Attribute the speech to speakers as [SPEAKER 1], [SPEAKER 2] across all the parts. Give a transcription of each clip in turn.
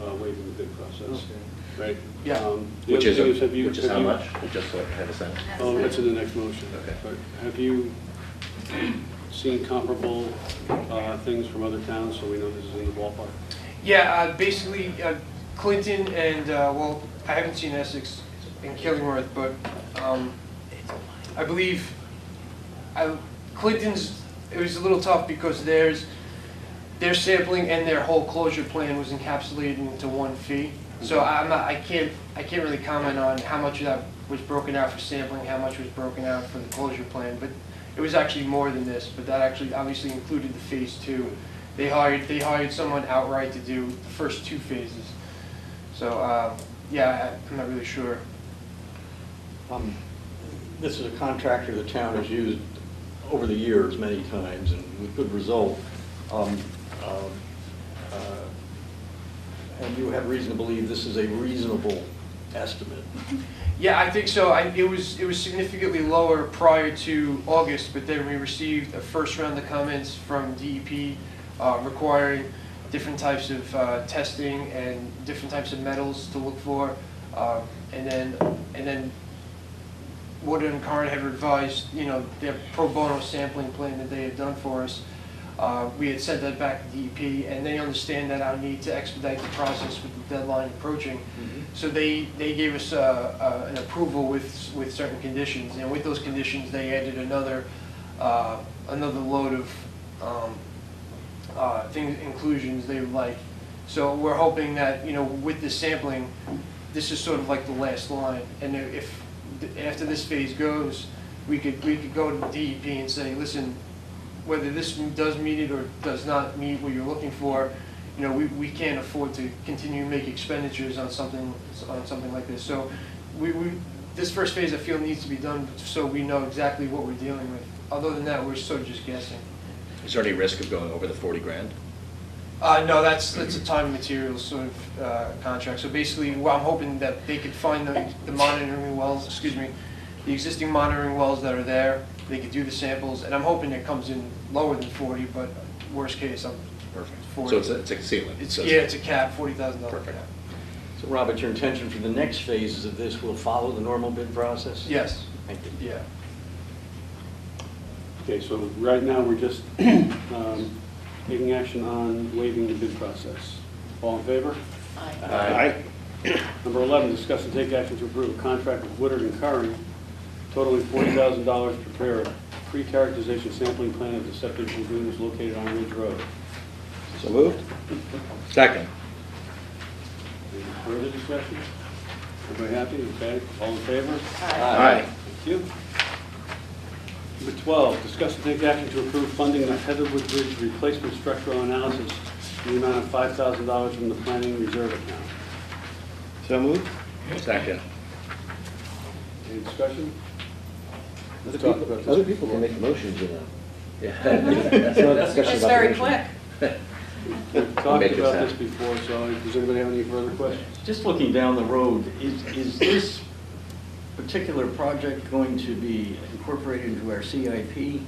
[SPEAKER 1] uh,
[SPEAKER 2] cents.
[SPEAKER 1] right?
[SPEAKER 2] Yeah.
[SPEAKER 1] Um, the
[SPEAKER 3] Which
[SPEAKER 1] other
[SPEAKER 3] is,
[SPEAKER 1] thing
[SPEAKER 3] a-
[SPEAKER 1] have you-
[SPEAKER 3] which is
[SPEAKER 1] have
[SPEAKER 3] how
[SPEAKER 1] you-
[SPEAKER 3] much? Just so I have a sense.
[SPEAKER 1] Oh, that's in the next motion.
[SPEAKER 3] Okay.
[SPEAKER 1] But Have you seen comparable uh, things from other towns, so we know this is in the ballpark?
[SPEAKER 4] Yeah, uh, basically, uh, Clinton and, uh, well, I haven't seen Essex and Killingworth, but um, I believe, I- Clinton's, it was a little tough because theirs, their sampling and their whole closure plan was encapsulated into one fee. So I'm not, I can't, I can't really comment on how much of that was broken out for sampling, how much was broken out for the closure plan, but it was actually more than this, but that actually obviously included the phase two. They hired, they hired someone outright to do the first two phases. So, uh, yeah, I- I'm not really sure.
[SPEAKER 2] Um, This is a contractor the town has used over the years many times and with good result. Um, um, uh, And you have reason to believe this is a reasonable estimate.
[SPEAKER 4] Yeah, I think so. I, it was, it was significantly lower prior to August, but then we received a first round of comments from DEP uh, requiring different types of uh, testing and different types of metals to look for. Um, And then, and then Wood and Karn had revised, you know, their pro bono sampling plan that they had done for us. Uh, We had sent that back to DEP, and they understand that our need to expedite the process with the deadline approaching. So they, they gave us uh, uh, an approval with, with certain conditions, and with those conditions, they added another, uh, another load of um, uh, things, inclusions they would like. So we're hoping that, you know, with this sampling, this is sort of like the last line. And if, after this phase goes, we could, we could go to DEP and say, listen, whether this does meet it or does not meet what you're looking for, you know, we, we can't afford to continue to make expenditures on something, on something like this. So we, we, this first phase, I feel, needs to be done so we know exactly what we're dealing with. Other than that, we're sort of just guessing.
[SPEAKER 3] Is there any risk of going over the 40 grand?
[SPEAKER 4] Uh, no, that's, that's a time and materials sort of, uh, contract, so basically, well, I'm hoping that they could find the, the monitoring wells, excuse me, the existing monitoring wells that are there, they could do the samples, and I'm hoping it comes in lower than forty, but worst case, I'm,
[SPEAKER 3] Perfect. So
[SPEAKER 4] 40.
[SPEAKER 3] it's a, it's a ceiling?
[SPEAKER 4] it's,
[SPEAKER 3] So
[SPEAKER 4] yeah,
[SPEAKER 3] it's-
[SPEAKER 4] it's a cap, forty thousand dollar
[SPEAKER 3] Perfect.
[SPEAKER 4] cap.
[SPEAKER 2] So Robert, your intention for the next phases of this will follow the normal bid process?
[SPEAKER 4] Yes,
[SPEAKER 2] Thank you.
[SPEAKER 4] yeah,
[SPEAKER 1] Okay, so right now, we're just um, taking action on waiving the bid process. All in favor?
[SPEAKER 3] Aye.
[SPEAKER 1] Number 11, discuss and take action to approve a contract with Woodard and Curran totaling $40,000 to prepare a pre-characterization sampling plan of the septic lagoons located on Ridge Road.
[SPEAKER 3] So moved? Second.
[SPEAKER 1] Any further discussion? Everybody happy? Okay, all in favor?
[SPEAKER 3] Aye.
[SPEAKER 1] Thank you. Number 12, discuss and take action to approve funding the Heatherwood Bridge replacement structural analysis in the amount of $5,000 from the planning reserve account.
[SPEAKER 3] So moved? Second.
[SPEAKER 1] Any discussion?
[SPEAKER 5] Other
[SPEAKER 1] Let's talk about
[SPEAKER 5] people,
[SPEAKER 1] this
[SPEAKER 5] other people can make motions, you know. That's not a
[SPEAKER 3] Yeah.
[SPEAKER 5] discussion about
[SPEAKER 6] It's
[SPEAKER 5] the
[SPEAKER 6] very
[SPEAKER 5] motion.
[SPEAKER 6] quick.
[SPEAKER 1] We've talked
[SPEAKER 3] Make it
[SPEAKER 1] about
[SPEAKER 3] sound.
[SPEAKER 1] this before, so does anybody have any further questions?
[SPEAKER 2] Just looking down the road, is, is this particular project going to be incorporated into our CIP?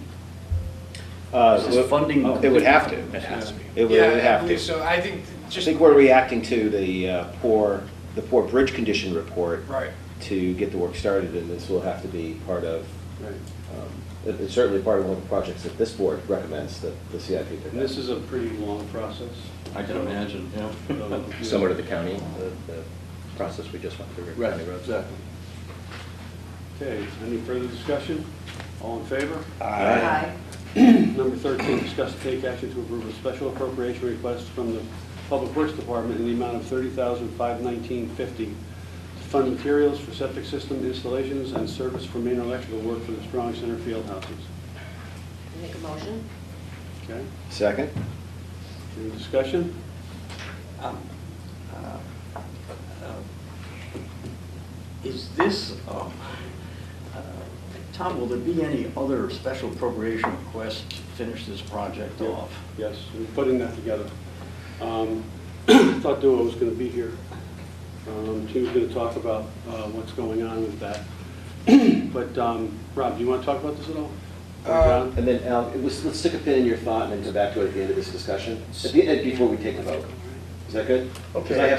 [SPEAKER 5] Uh,
[SPEAKER 2] This is
[SPEAKER 5] well,
[SPEAKER 2] funding.
[SPEAKER 5] It would have to.
[SPEAKER 3] It has to be.
[SPEAKER 5] It would it would
[SPEAKER 4] yeah, I
[SPEAKER 5] have
[SPEAKER 4] believe
[SPEAKER 5] to.
[SPEAKER 4] so, I think,
[SPEAKER 5] I
[SPEAKER 4] just,
[SPEAKER 5] think we're reacting to the uh, poor, the poor bridge condition report
[SPEAKER 4] right,
[SPEAKER 5] to get the work started, and this will have to be part of,
[SPEAKER 1] Right.
[SPEAKER 5] um, it- it's certainly part of one of the projects that this board recommends that the CIP pick
[SPEAKER 1] And
[SPEAKER 5] up.
[SPEAKER 1] this is a pretty long process.
[SPEAKER 2] I can imagine, yeah.
[SPEAKER 1] So-
[SPEAKER 3] Similar to the county, the, the process we just went through. with
[SPEAKER 1] Right,
[SPEAKER 3] county roads.
[SPEAKER 1] exactly. Okay, any further discussion? All in favor?
[SPEAKER 6] Aye.
[SPEAKER 1] Number 13, discuss and take action to approve a special appropriation request from the Public Works Department in the amount of $30,519.50 to fund materials for septic system installations and service for main electrical work for the Strong Center field houses.
[SPEAKER 6] Make a motion?
[SPEAKER 1] Okay,
[SPEAKER 5] Second?
[SPEAKER 1] any discussion?
[SPEAKER 2] Um, uh, uh, Is this, um, uh, Tom, will there be any other special appropriation requests to finish this project off?
[SPEAKER 1] Yes, we're putting that together. Um, I Thought Dua was going to be here. Um, She was going to talk about uh, what's going on with that. But, um, Rob, do you want to talk about this at all? Or
[SPEAKER 4] Uh,
[SPEAKER 1] John?
[SPEAKER 5] And then, Al, it was- let's stick a pin in your thought and then come back to it at the end of this discussion, At the- before we take a vote. Is that good? 'Cause I
[SPEAKER 2] Okay.
[SPEAKER 5] have